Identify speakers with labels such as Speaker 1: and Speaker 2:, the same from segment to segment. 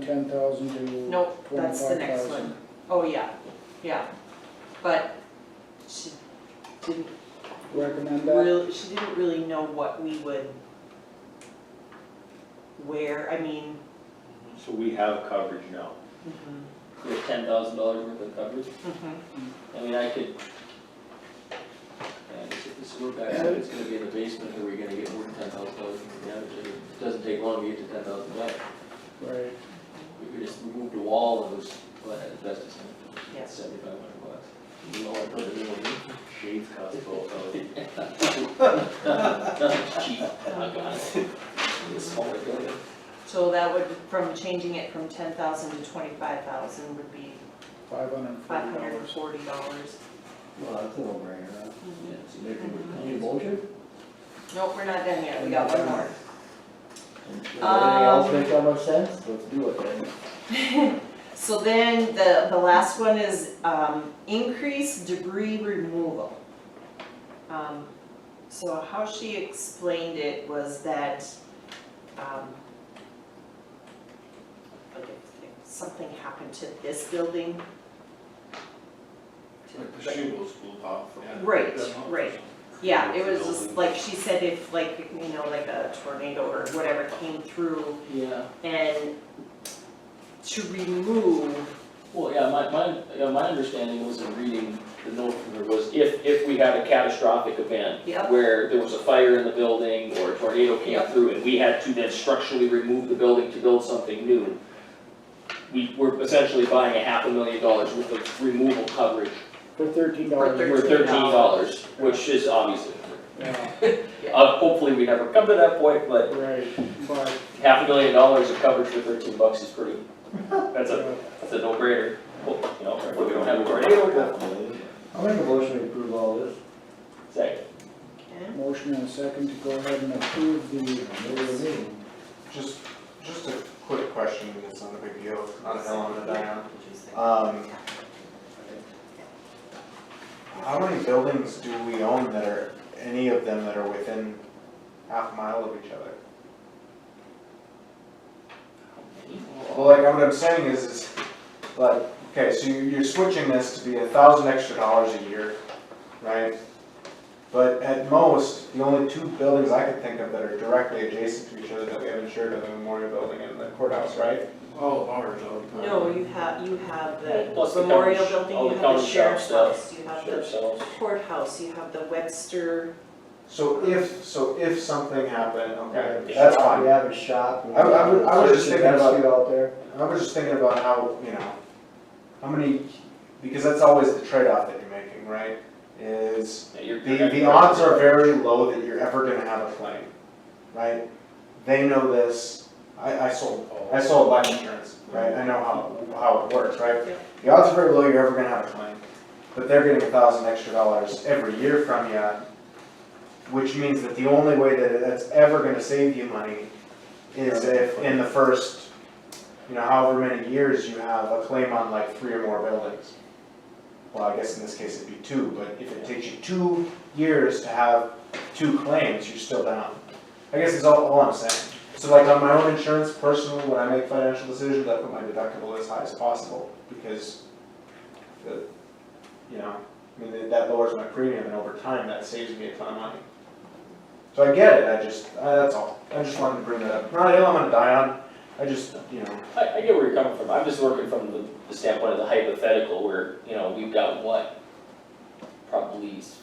Speaker 1: ten thousand to
Speaker 2: Nope,
Speaker 1: twenty-five
Speaker 2: that's the
Speaker 1: thousand.
Speaker 2: next one. Oh, yeah, yeah. But she didn't
Speaker 1: Recommend that?
Speaker 2: really, she didn't really know what we would wear, I mean,
Speaker 3: So we have coverage now.
Speaker 2: mhm,
Speaker 4: We have ten thousand dollars worth of coverage,
Speaker 2: mhm.
Speaker 4: I mean, I could. And if this work guy said it's gonna be in the basement, are we gonna get more than ten thousand dollars in damage, and it doesn't take long to get to ten thousand dollars.
Speaker 1: Right,
Speaker 4: We could just remove the wall and just, well, at best it's
Speaker 2: Yes.
Speaker 4: seventy-five hundred bucks. You know, I put it in one.
Speaker 3: Shades cost twelve thousand.
Speaker 4: Nothing's cheap, I got it. It's a smaller building.
Speaker 2: So that would, from changing it from ten thousand to twenty-five thousand would be
Speaker 1: five hundred and
Speaker 2: five
Speaker 1: forty
Speaker 2: hundred and
Speaker 1: dollars.
Speaker 2: forty dollars.
Speaker 5: Well, that's a no-brainer.
Speaker 4: Yeah, so maybe
Speaker 2: Mhm.
Speaker 4: we're.
Speaker 5: Any motion?
Speaker 2: Nope, we're not done yet, we got one more.
Speaker 5: Anything else
Speaker 2: Um,
Speaker 5: make that much sense? Let's do it then.
Speaker 2: So then the, the last one is, um, increase debris removal. Um, so how she explained it was that, um, like if, if something happened to this building. to-
Speaker 3: Like the shingles blew off. yeah.
Speaker 2: Right,
Speaker 3: They're not-
Speaker 2: right. Yeah, it was
Speaker 3: Building.
Speaker 2: just, like she said, if like, you know, like a tornado or whatever came through
Speaker 4: Yeah.
Speaker 2: and to remove
Speaker 4: Well, yeah, my, my, yeah, my understanding was in reading the note from there was if, if we had a catastrophic event.
Speaker 2: Yep.
Speaker 4: Where there was a fire in the building or a tornado came
Speaker 2: Yep.
Speaker 4: through and we had to then structurally remove the building to build something new. We were essentially buying a half a million dollars worth of removal coverage
Speaker 1: For thirteen dollars.
Speaker 4: for thirteen dollars, which is obviously.
Speaker 1: Yeah,
Speaker 4: Uh, hopefully we never come to that point, but
Speaker 1: right, but,
Speaker 4: half a million dollars of coverage for thirteen bucks is pretty, that's a,
Speaker 1: uh,
Speaker 4: that's a no-brainer. Well, You know, if we don't have a tornado, we'll-
Speaker 5: I'll make a motion to approve all this.
Speaker 4: Second.
Speaker 1: motion and a second to go ahead and approve
Speaker 5: What do you
Speaker 1: the,
Speaker 5: mean?
Speaker 6: Just, just a quick question, it's not a big deal, not a hell on a dime.
Speaker 4: Uh,
Speaker 6: Um, How many buildings do we own that are, any of them that are within half a mile of each other? Well, like, what I'm saying is, is, like, okay, so you- you're switching this to be a thousand extra dollars a year, right? But at most, the only two buildings I could think of that are directly adjacent to each other that we have insured are the memorial building and the courthouse, right?
Speaker 3: All of ours, all the time.
Speaker 2: No, you have, you have the
Speaker 4: Plus the
Speaker 2: memorial
Speaker 4: county sh-
Speaker 2: building,
Speaker 4: all
Speaker 2: you
Speaker 4: the
Speaker 2: have the
Speaker 4: county
Speaker 2: sheriff's
Speaker 4: shop
Speaker 2: office, you have the
Speaker 4: Sheriff's Office.
Speaker 2: courthouse, you have the Webster.
Speaker 6: So if, so if something happened, okay,
Speaker 5: We have a
Speaker 6: that's
Speaker 5: shop, We
Speaker 6: fine.
Speaker 5: have a shop. we
Speaker 6: I would- I would- I would
Speaker 5: have
Speaker 6: just
Speaker 5: a
Speaker 6: think about-
Speaker 5: rescue Out there.
Speaker 6: I was just thinking about how, you know, how many, because that's always the trade-off that you're making, right? Is
Speaker 4: Yeah, you're-
Speaker 6: the, the odds are very low that you're ever gonna have a claim, right? They know this, I, I sold, I sold life insurance, right? I know how, how it works, right?
Speaker 2: Yeah.
Speaker 6: The odds are very low you're ever gonna have a claim, but they're getting a thousand extra dollars every year from you, which means that the only way that that's ever gonna save you money is if in the first, you know, however many years you have a claim on like three or more buildings. Well, I guess in this case it'd be two, but if it takes you two years to have two claims, you're still down. I guess is all, all I'm saying. So like on my own insurance personally, when I make financial decisions, I put my deductible as high as possible because the, you know, I mean, that- that lowers my premium and over time that saves me a ton of money. So I get it, I just, uh, that's all. I just wanted to bring that up. Not a hill I'm gonna die on. I just, you know,
Speaker 4: I, I get where you're coming from, I'm just working from the, the standpoint of the hypothetical where, you know, we've got what? Probably s-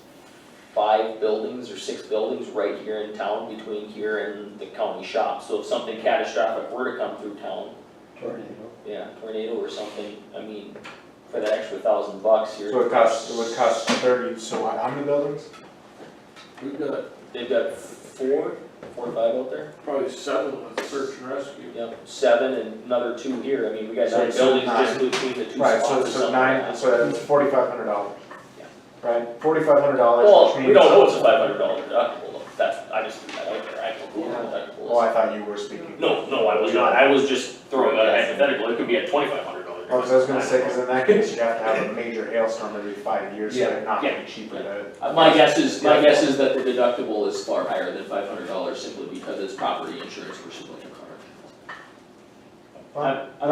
Speaker 4: five buildings or six buildings right here in town between here and the county shop. So if something catastrophic were to come through town,
Speaker 5: Tornado.
Speaker 4: yeah, tornado or something, I mean, for that extra thousand bucks here.
Speaker 6: so it costs, it would cost thirty, so what, how many buildings?
Speaker 4: We've got, they've got four, four or five out there?
Speaker 3: Probably seven with search and rescue.
Speaker 4: Yep, seven and another two here, I mean, we got
Speaker 6: So
Speaker 4: nine
Speaker 6: it's
Speaker 4: buildings just
Speaker 6: nine.
Speaker 4: between the two
Speaker 6: Right,
Speaker 4: spots
Speaker 6: so,
Speaker 4: or
Speaker 6: so
Speaker 4: something
Speaker 6: nine,
Speaker 4: like
Speaker 6: so that's forty-five hundred dollars.
Speaker 4: Yeah.
Speaker 6: Right, forty-five hundred
Speaker 4: that.
Speaker 6: dollars, which
Speaker 4: Well,
Speaker 6: means.
Speaker 4: we don't know it's a five hundred dollar deductible, though. that's, I just threw that out there, I don't know what the
Speaker 6: Oh,
Speaker 4: deductible is.
Speaker 6: I thought you were speaking.
Speaker 4: No, no, I was not, I was just throwing out a hypothetical, it could be a twenty-five hundred dollar.
Speaker 6: Oh, 'cause I was gonna say, cause in that case, you have to have a major hailstorm every five years, so it not
Speaker 4: Yeah.
Speaker 6: be cheaper to.
Speaker 4: My guess is, my guess is that the deductible is far higher than five hundred dollars simply because it's property insurance versus like a car.
Speaker 6: Well,
Speaker 4: I'm- I'm